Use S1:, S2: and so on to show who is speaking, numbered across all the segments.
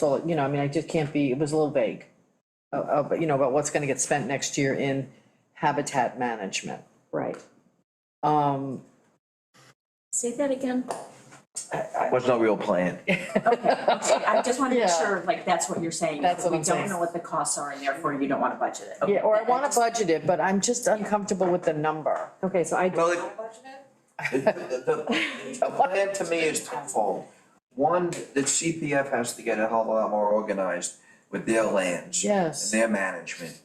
S1: So, you know, I mean, I just can't be, it was a little vague. Uh, uh, but you know, about what's gonna get spent next year in habitat management.
S2: Right.
S1: Um,
S2: Say that again.
S3: What's no real plan?
S2: I just want to make
S1: Yeah.
S2: sure, like, that's what you're saying.
S1: That's what I'm
S2: We
S1: saying.
S2: don't know what the costs are and therefore you don't want to budget it.
S1: yeah, or I wanna budget it, but I'm just uncomfortable with the number.
S4: Okay, so I,
S3: Well, it- the, the, the plan to me is twofold. One, that CPF has to get a hell of a lot more organized with their lands.
S1: Yes.
S3: And their management.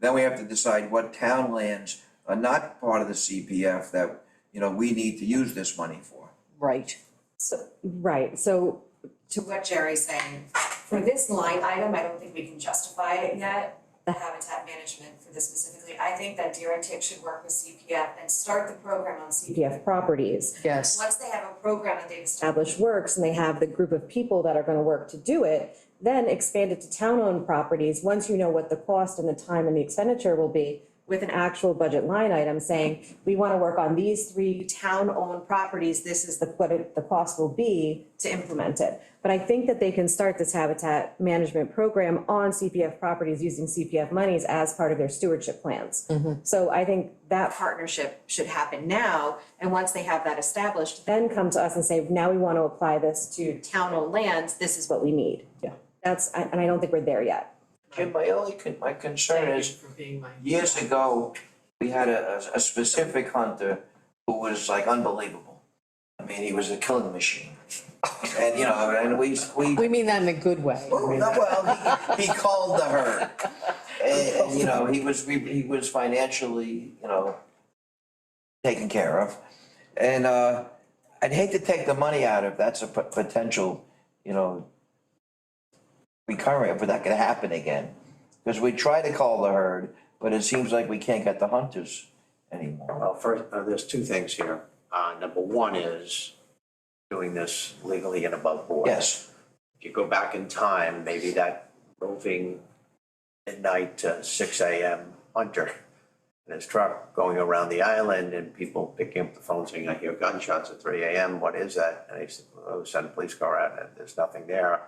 S3: Then we have to decide what town lands are not part of the CPF that, you know, we need to use this money for.
S1: Right.
S5: So,
S4: right, so,
S5: to what Jerry's saying, for this line item, I don't think we can justify it yet, the habitat management for this specifically. I think that Deer and Tick should work with CPF and start the program on CPF.
S4: PF properties,
S1: Yes,
S5: Once they have a program that they've established,
S4: established works, and they have the group of people that are gonna work to do it, then expand it to town-owned properties, once you know what the cost and the time and the expenditure will be, with an actual budget line item saying, we wanna work on these three town-owned properties, this is the, what it, the cost will be to implement it. But I think that they can start this habitat management program on CPF properties using CPF monies as part of their stewardship plans. So I think that
S5: partnership should happen now, and once they have that established,
S4: then come to us and say, now we want to apply this to
S5: town-owned lands, this is
S4: is what we need. Yeah. That's, I- and I don't think we're there yet.
S3: Jim, my only, con- my concern is, years ago, we had a, a- a specific hunter who was like unbelievable. I mean, he was a killing machine. And, you know, and we, we
S1: we mean that in a good way.
S3: Well, no, well, he, he called the herd. And,
S6: Oh.
S3: and, you know, he was, re- he was financially, you know, taken care of. And, uh, I'd hate to take the money out if that's a pot- potential, you know, recurring, if that could happen again. Because we try to call the herd, but it seems like we can't get the hunters anymore.
S6: Well, first, uh, there's two things here. Uh, number one is doing this legally and above board.
S3: Yes,
S6: If you go back in time, maybe that roving midnight to six AM hunter in his truck going around the island and people picking up the phone saying, I hear gunshots at three AM, what is that? And he said, oh, send a police car out and there's nothing there.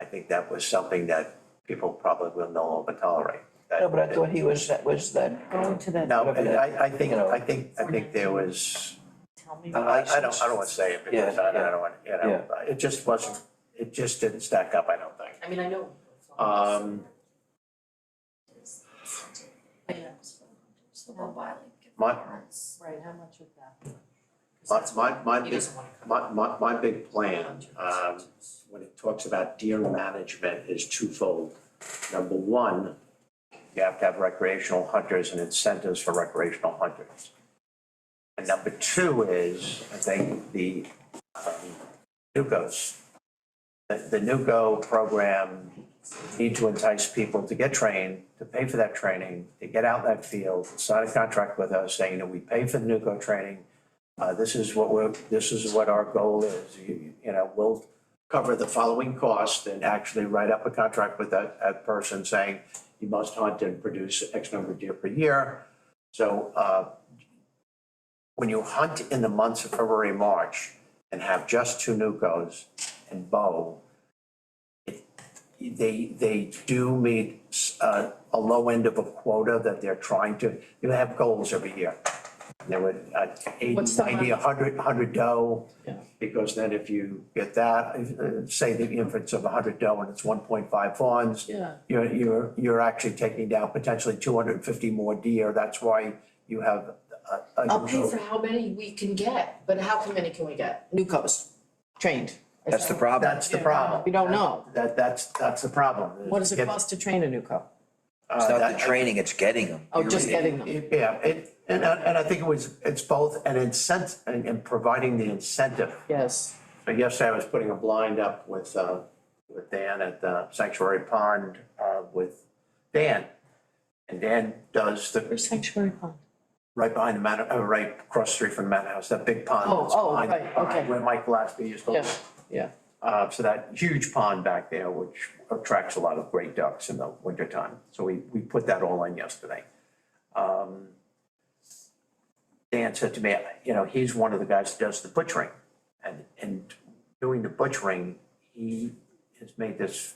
S6: I think that was something that people probably will no longer tolerate. That-
S3: no, but I thought he was, that was that.
S1: Going to that,
S6: no, and I, I think,
S3: You know.
S6: I think, I think there was,
S1: tell me.
S6: I, I don't, I don't wanna say it because I, I don't wanna, you know, it just wasn't, it just didn't stack up, I don't think.
S1: I mean, I know.
S6: Um,
S5: the one wildlife.
S6: my,
S1: Right, how much of that?
S6: my, my, my big,
S1: want to
S6: my, my, my big plan, um, when it talks about deer management is twofold. Number one, you have to have recreational hunters and incentives for recreational hunters. And number two is, I think, the, um, NUCOs. The, the NUCO program need to entice people to get trained, to pay for that training, to get out in that field, sign a contract with us saying that we pay for the NUCO training. Uh, this is what we're, this is what our goal is, you, you know, we'll cover the following cost and actually write up a contract with that, that person saying you must hunt and produce X number of deer per year. So, uh, when you hunt in the months of February, March and have just two nucos and bow, it- they, they do meet, uh, a low end of a quota that they're trying to, they have goals every year. There were uh, eighty,
S1: What's the
S6: ninety, a hundred, hundred doe.
S1: Yeah.
S6: Because then if you get that, uh, say the inference of a hundred doe and it's one point five fawns,
S1: Yeah.
S6: you're, you're, you're actually taking down potentially two hundred and fifty more deer. That's why you have a, a.
S7: I'll pay for how many we can get, but how many can we get?
S1: Newcos, trained.
S3: That's the problem.
S6: That's the problem.
S1: We don't know.
S6: That, that's, that's the problem.
S1: What does it
S6: Get-
S1: cost to train a newco?
S6: uh,
S3: It's not
S6: that-
S3: the training, it's getting them.
S1: Oh, just
S3: Period.
S1: getting them.
S6: it- Yeah, it, and, I- and I think it was, it's both an incentive and, and providing the incentive.
S1: Yes,
S6: But yesterday I was putting a blind up with, uh, with Dan at the Sanctuary Pond, uh, with Dan. And Dan does the,
S1: where's Sanctuary Pond?
S6: right behind the manor, uh, right across the street from the manor house, that big pond.
S1: Oh,
S6: that's
S1: oh,
S6: behind-
S1: right, okay.
S6: behind Where Mike Gillespie used to live.
S1: Yeah, yeah.
S6: Uh, so that huge pond back there, which attracts a lot of great ducks in the wintertime. So we, we put that all in yesterday. Um, Dan said to me, you know, he's one of the guys that does the butchering. And, and doing the butchering, he just made this